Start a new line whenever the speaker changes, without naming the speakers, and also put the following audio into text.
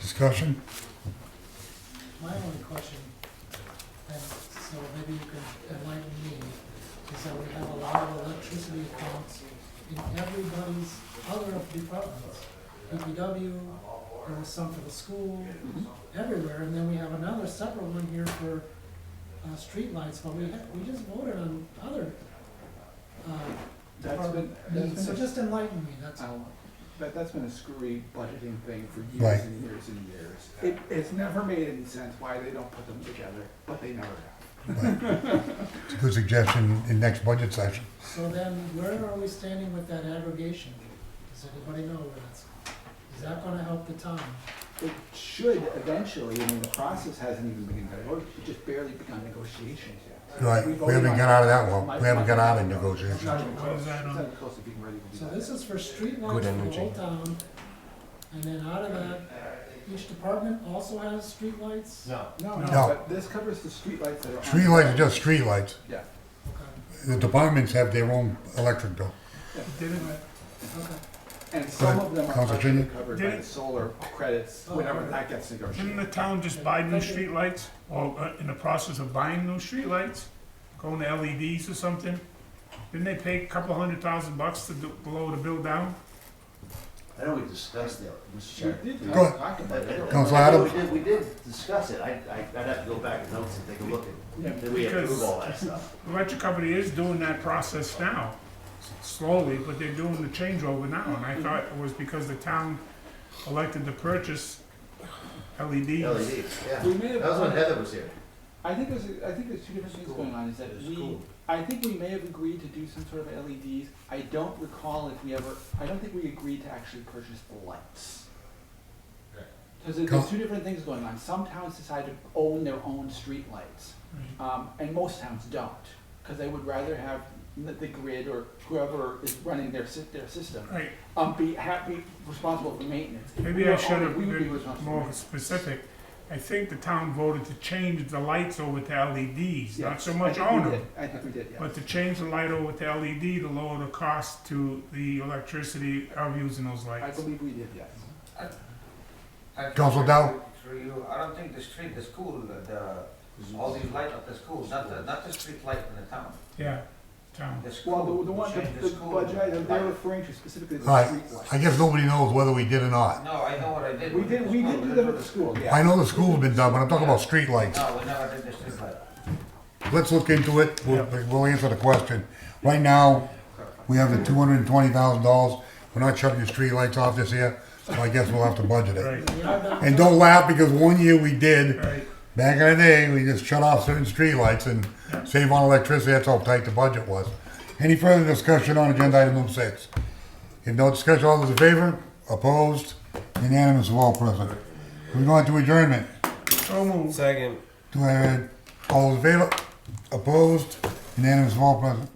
Discussion?
My only question, and so maybe you can enlighten me, is that we have a lot of electricity accounts in everybody's other departments. PPW, there was some for the school,
Mm-hmm.
everywhere, and then we have another separate one here for, uh, streetlights, but we had, we just voted on other, uh,
That's been,
department needs,
that's
so
been,
just enlighten me, that's
a-
all.
um, but that's been a screwy budgeting thing for
Right.
years and years and years. It, it's never made any sense why they don't put them together, but they never have.
Right. It's a good suggestion in next budget session.
So then, where are we standing with that aggregation? Does anybody know where that's, is that gonna help the town?
It should eventually, I mean, the process hasn't even begun, it's just barely begun negotiations yet.
Right,
We've
we haven't
only-
got out of that one,
My-
we haven't
my-
got out of
It's
negotiations.
not even close, it's not even close to being ready to be
So
done.
this is for street
Good
lights for the
energy.
whole town, and then out of that, each department also has street lights.
No.
No,
No.
no, but this covers the streetlights that are on.
Streetlights are just streetlights.
Yeah,
Okay,
The departments have their own electric bill.
okay.
and some
ahead,
of them are
Councilor
partially
Cheney.
covered by the
Didn't-
solar credits,
Oh,
whenever
okay.
that gets negotiated.
Didn't the town just buy new streetlights, or uh, in the process of buying new streetlights, going to LEDs or something? Didn't they pay a couple hundred thousand bucks to do, blow the bill down?
I know we discussed that, Mr.
We
Chair.
did
Go ahead.
talk about
But I
it.
don't-
Councilor
I know
Adams.
We did, we did discuss it, I, I, I'd have to go back and notes and take a look
Yeah,
at, did we
because-
approve all that stuff?
The electric company is doing that process now, s- slowly, but they're doing the changeover now, and I thought it was because the town elected to purchase E LEDs.
LEDs, yeah.
We may have-
That was when Heather was here.
I think there's, a- I think there's two different things going on, is that
It's
we,
cool.
I think we may have agreed to do some sort of LEDs. I don't recall if we ever, I don't think we agreed to actually purchase the lights. Cause there- there's two different things going on. Some towns decide to own their own streetlights. Um, and most towns don't, cause they would rather have n- the grid or whoever is running their sy- their system,
Right,
um, be happy, responsible for maintenance. We
Maybe I
are
should
only-
have
we would be
been
responsible for
more specific. I think the town voted to change the lights over to LEDs, not
Yes,
so
I
much
think we
own
did.
them.
I think we did, yeah.
But to change the light over to LED to lower the cost to the electricity of using those
I
lights.
believe we did, yes.
Council Dow.
Through you, I don't think the street, the school, the, the- all these light up the schools, not the, not the street light in the town,
Yeah, town.
the school.
Well, the, the one,
change
the, the
school
budget item they're
light.
referring to specifically is the
All right,
streetlights.
I guess nobody knows whether we did or not.
No, I know what I did.
We
with
did,
the
we
school,
did do
didn't
them at
we?
the school, yeah.
I know the school's been done, but I'm talking about streetlights.
No, we never did the street light.
Let's look into it, we'll, we'll answer the question. Right now, we have the two hundred and twenty thousand dollars, we're not shutting the streetlights off this year, so I guess we'll have to budget it.
Right,
We are not-
And don't laugh, because one year we did,
right.
Back in the day, we just shut off certain streetlights and save on electricity. That's how tight the budget was. Any further discussion on agenda item number six? If no discussion, all those in favor? Opposed? Unanimous of all present. We're going to adjournment.
So moved.
Second.
Do I, all those in favor? Opposed? Unanimous of all present.